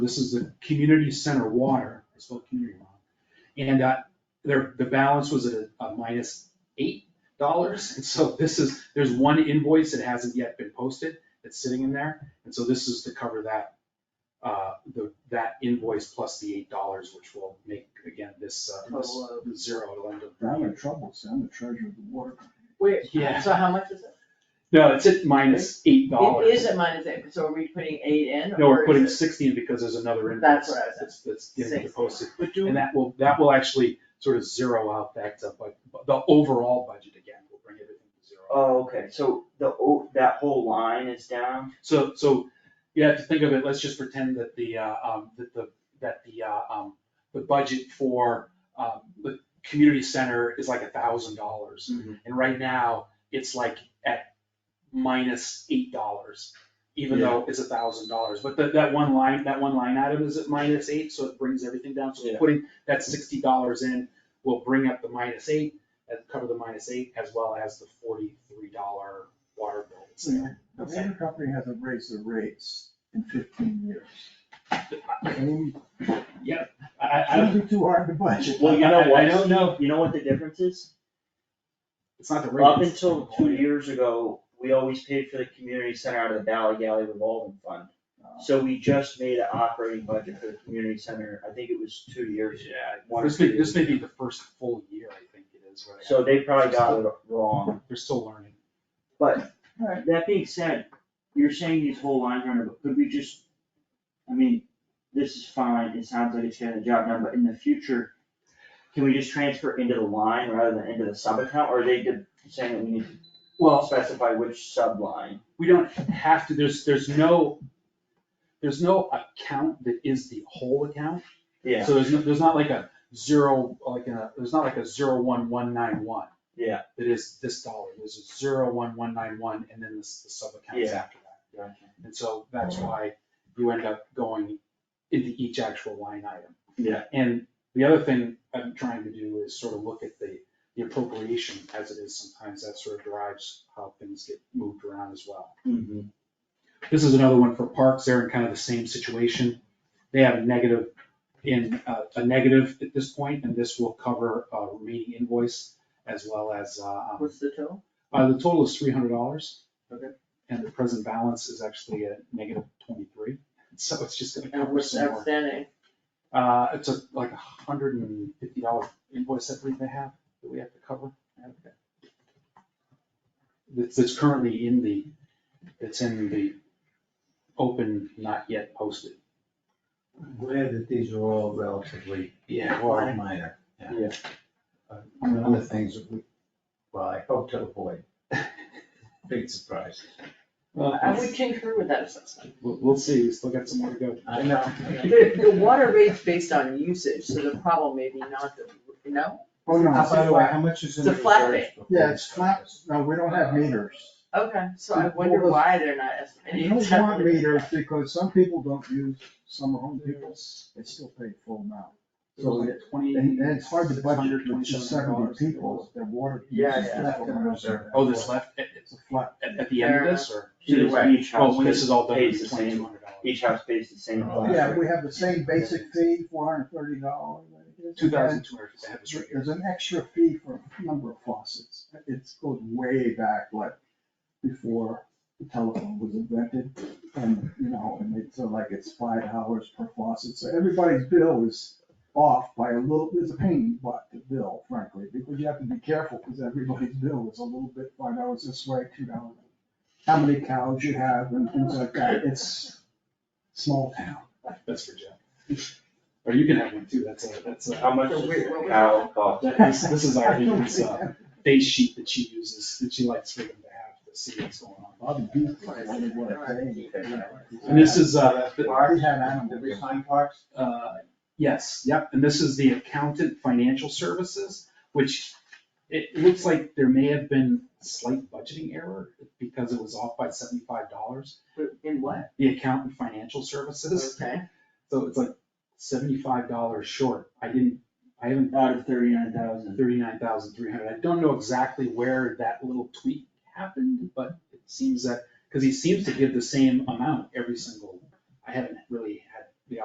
This is the community center water, I spelled community wrong. And uh, their, the balance was a a minus eight dollars. And so this is, there's one invoice that hasn't yet been posted that's sitting in there. And so this is to cover that, uh, the, that invoice plus the eight dollars, which will make, again, this, uh, this Total zero to end up. I'm in trouble, see, I'm the treasurer of the water. company. Wait, Yeah. so how much is it? No, it's at minus eight dollars. It is a minus eight, so are we putting eight in? No, or we're is putting it- sixty in because there's another invoice. That's what I was That's, that's getting Six. posted. But And do, that will, that will actually sort of zero out that, uh, but but the overall budget again, will bring everything to zero. Oh, okay, so the, o- that whole line is down? So, so you have to think of it, let's just pretend that the, uh, um, that the, that the, uh, um, the budget for, um, the community center is like a thousand dollars. And right now, it's like at minus eight dollars, even though it's a thousand dollars. But that, that one line, that one line item is at minus eight, so it brings everything down. So Yeah. putting that sixty dollars in will bring up the minus eight, and cover the minus eight, as well as the forty-three dollar water bill. that's Mm. there. the water company hasn't raised their rates in fifteen years. I mean, I, I, I it don't, shouldn't be too hard to budget. Well, you I- know I- what, I don't know. You know what the difference is? it's not the rate. Up until two years ago, we always paid for the community center out of the Valley Galley revolving fund. Uh, So we just made an operating budget for the community center, I think it was two Yeah, years. One or this may, two this may years. be the first full year, I think it is, right? So they probably got it wrong. They're still learning. But, Alright. that being said, you're saying these whole line item, but could we just, I mean, this is fine, it sounds like it's getting the job done, but in the future, can we just transfer into the line rather than into the sub account, or are they did- saying that we need to Well, specify which sub line? we don't have to, there's, there's no, there's no account that is the whole account. So there's, no- there's not like a zero, like a, there's not like a zero one one nine one. Yeah. That is this dollar, there's a zero one one nine one and then this, the sub-accounts Yeah. after that. And so that's why you end up going into each actual line item. Yeah. And the other thing I'm trying to do is sort of look at the, the appropriation as it is sometimes, that sort of derives how things get moved around as well. Mhm. This is another one for parks, they're in kind of the same situation. They have a negative in, uh, a negative at this point, and this will cover a remaining invoice as well as, uh, um, What's the total? uh, the total is three hundred dollars. Okay. And the present balance is actually at negative twenty-three, so it's just gonna And cover what's some more. outstanding? Uh, it's a, like a hundred and fifty dollar invoice I believe they have, that we have to cover. That's, that's currently in the, it's in the open, not yet posted. I'm glad that these are all relatively Well, minor. Yeah. Uh, One of the things that we, well, I hope to avoid, big surprises. I would concur with that assessment. We'll, we'll see, we still got some more to go. I know. The, the water rate's based on usage, so the problem may be not the, no? Oh, no, Uh, By the way, by how much is in It's a the flat reserves? rate. before yeah, we it's start flat, this? no, we don't have meters. Okay, so I wonder why they're not We estimating. don't want meters because some people don't use, some home people, they still pay full amount. So it- twenty. And, and it's hard to budget with $627. just seventy people, their water. Yeah, usage yeah. is full amount of their- Oh, this left, at, It's a flat, at, at the end of this, or? So Either this way, each Oh, house when this pays, is all done, Oh, pays it's the twenty-two same, hundred dollars. each house pays the same. amount. yeah, we have the same basic fee, four hundred thirty dollars. Two thousand two hundred, I have this right here. There's an extra fee for a number of faucets, it goes way back, like, before the telephone was invented. And, you know, and it's uh, like it's five hours per faucet, so everybody's bill is off by a little, there's a pain, but the bill, frankly, because you have to be careful, because everybody's bill is a little bit, five dollars this way, two dollars. How many cows you have and things like that, it's small town. That's for Jeff. Or you can have one too, that's a, that's a, um, How much So does we- what the we- cow cost? that is, this is our, it's uh base sheet that she uses, that she likes for them to have to see what's going on. Bobby Beef was one of what I think. And this is, uh, the- Already had animal. Did we find parks? uh, yes, yep, and this is the accountant financial services, which it looks like there may have been slight budgeting error because it was off by seventy-five dollars. In what? The accountant financial services, Okay, so it's like seventy-five dollars short. I didn't, I haven't Out of thirty-nine thousand. thirty-nine thousand three hundred. I don't know exactly where that little tweak happened, but it seems that, because he seems to give the same amount every single, I haven't really